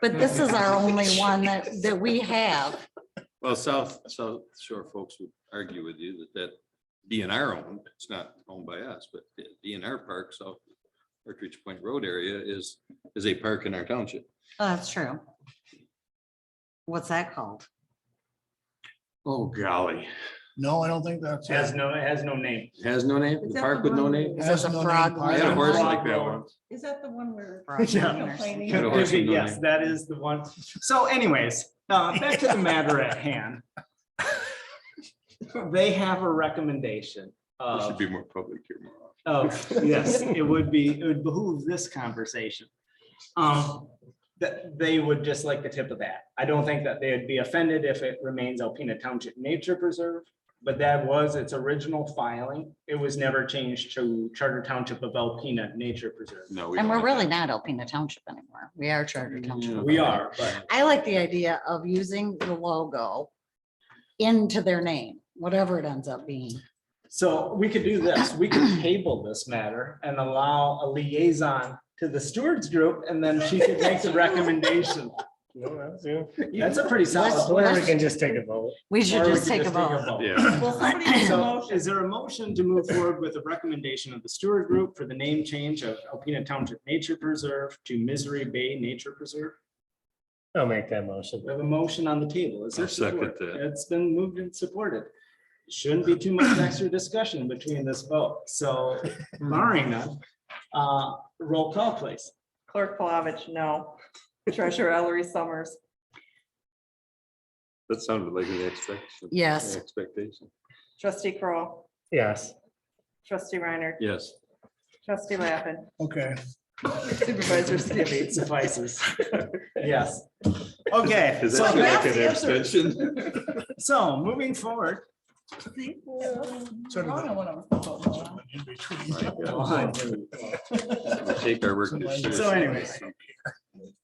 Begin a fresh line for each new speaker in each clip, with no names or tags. But this is our only one that, that we have.
Well, South, South Shore folks would argue with you that that DNR owned, it's not owned by us, but the DNR Park, South Partridge Point Road area is, is a park in our township.
Oh, That's true. What's that called?
Oh, golly.
No, I don't think that's.
Has no, it has no name.
It Has no name,
Is
the
that
park
the
with no
one
name.
where-
Is it a
no
frog
name.
I
line?
had a horse like that once.
Is that the one where?
Frog
Yeah.
line or something?
Complaining.
Had a horse with no
Yes,
name.
that is the one. So anyways, uh, back to the matter at hand. They have a recommendation
There should
of,
be more public here more often.
of, yes, it would be, it would behoove this conversation. Um, that they would just like the tip of that. I don't think that they would be offended if it remains Alpena Township Nature Preserve. But that was its original filing. It was never changed to Charter Township of Alpena Nature Preserve.
No. we
And
don't
we're really
have
not opening the township anymore. We are charter township.
We are, but
I like the idea of using the logo into their name, whatever it ends up being.
So we could do this, we could table this matter and allow a liaison to the stewards group and then she could make the recommendation. That's a pretty
Let's-
solid.
Or we can
just take a vote.
We should just take a vote.
that. Yeah,
Well, somebody made a
So
motion.
is there a motion to move forward with a recommendation of the steward group for the name change of Alpena Township Nature Preserve to Misery Bay Nature Preserve?
I'll make that motion.
We have a motion on the table. Is there
I'll second
support?
that.
It's been moved and supported. Shouldn't be too much extra discussion between this vote. So barring none, uh, roll call please.
Clerk Plavich, no. Treasurer Ellery Summers,
that sounded like an expectation.
Yes.
An Expectation.
trustee Kroll,
Yes.
trustee Reiner,
Yes.
trustee Lappin,
Okay,
supervisor
It
Skibby.
suffices. Yes. Okay,
Is
so
that like
that's
an
the answer.
extension?
so moving forward.
See?
Sort of
I don't know what I'm supposed to do.
in between.
My God.
Well,
We Take our work. as
So
seriously.
anyways,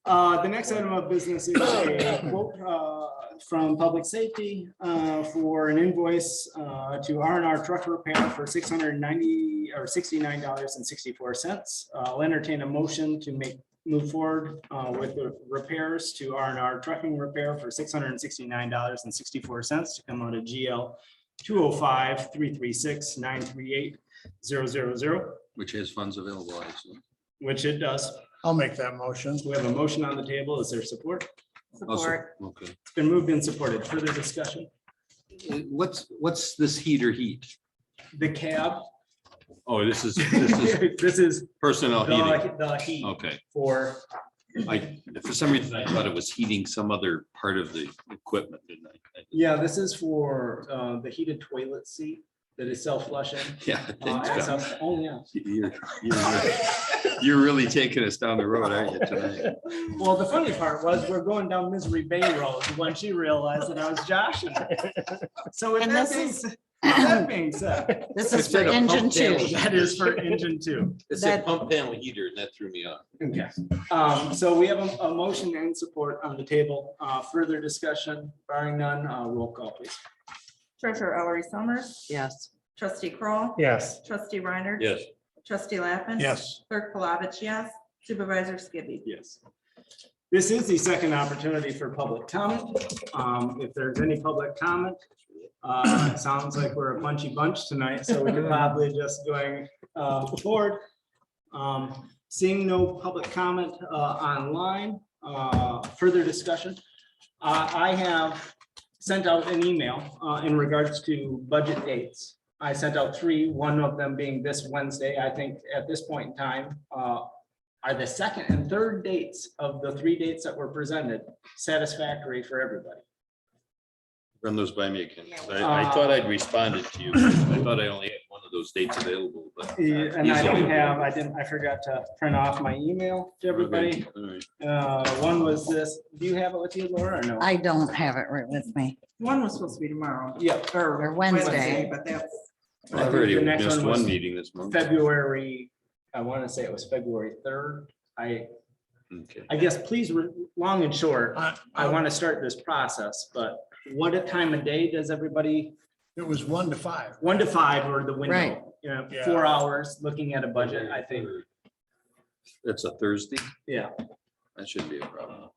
Uh, the next item of business is a quote, uh, from Public Safety, uh, for an invoice, uh, to R and R Truck Repair for six hundred and ninety, or sixty-nine dollars and sixty-four cents. Uh, I'll entertain a motion to make, move forward, uh, with the repairs to R and R Trucking Repair for six hundred and sixty-nine dollars and sixty-four cents to come out of GL two oh five, three three six, nine three eight, zero zero zero,
Which has funds available. I assume.
which it does.
I'll make that motion.
We have a motion on the table. Is there support?
Also,
Support.
Okay.
It's been moved and supported. Further discussion?
Uh, What's, what's this heater heat?
The cab.
Oh, this is, this is
This is
personnel heating.
the, the heat
Okay,
for,
I, for some reason, I thought it was heating some other part of the equipment, didn't I?
yeah, this is for, uh, the heated toilet seat that is self-flushing.
Yeah. I
Uh,
think
it's
so.
up- Oh, yeah.
You're you're- you're really taking us down the road, aren't you, tonight?
Well, the funny part was we're going down Misery Bay Road when she realized that I was joshing. her. So with
And
that
this
being, s- with that being said,
This is
It's
for
like a pump
engine two.
damage.
that is for engine two.
It's
said That-
pump panel heater, and that threw me off.
Okay, um, so we have a, a motion and support on the table. Uh, further discussion, barring none, uh, roll call please.
Treasurer Ellery Summers,
Yes.
trustee Kroll,
Yes.
trustee Reiner.
Yes.
Trustee Lappin.
Yes,
Clerk Plavich, yes. Supervisor Skibby.
Yes. This is the second opportunity for public comment. Um, if there's any public comment, uh, it sounds like we're a punchy bunch tonight, so we could probably just going, uh, forward. Um, seeing no public comment, uh, online, uh, further discussion. Uh, I have sent out an email, uh, in regards to budget dates. I sent out three, one of them being this Wednesday. I think at this point in time, uh, are the second and third dates of the three dates that were presented satisfactory for everybody?
Run those by me again. 'cause I, I
Uh,
thought I'd responded to you. I thought I only had one of those dates available, but. uh,
E, And I
He's
don't
only-
have, I didn't, I forgot to print off my email to everybody.
Okay, all right.
Uh, one was this, do you have it with you, Laura, or no?
I don't have it right with me.
One was supposed to be tomorrow.
Yeah,
Or Wednesday.
But that's,
I
I've
think
already
the next
missed
one was
one meeting this month.
February, I want to say it was February third. I,
Okay.
I guess, please, re- long and short,
I,
I
I,
want to start this process, but what a time of day does everybody
it was one to five.
one to five or the
Right.
window, you know,
Yeah.
four hours looking at a budget, I think,
That's a Thursday?
yeah.
That shouldn't be a problem.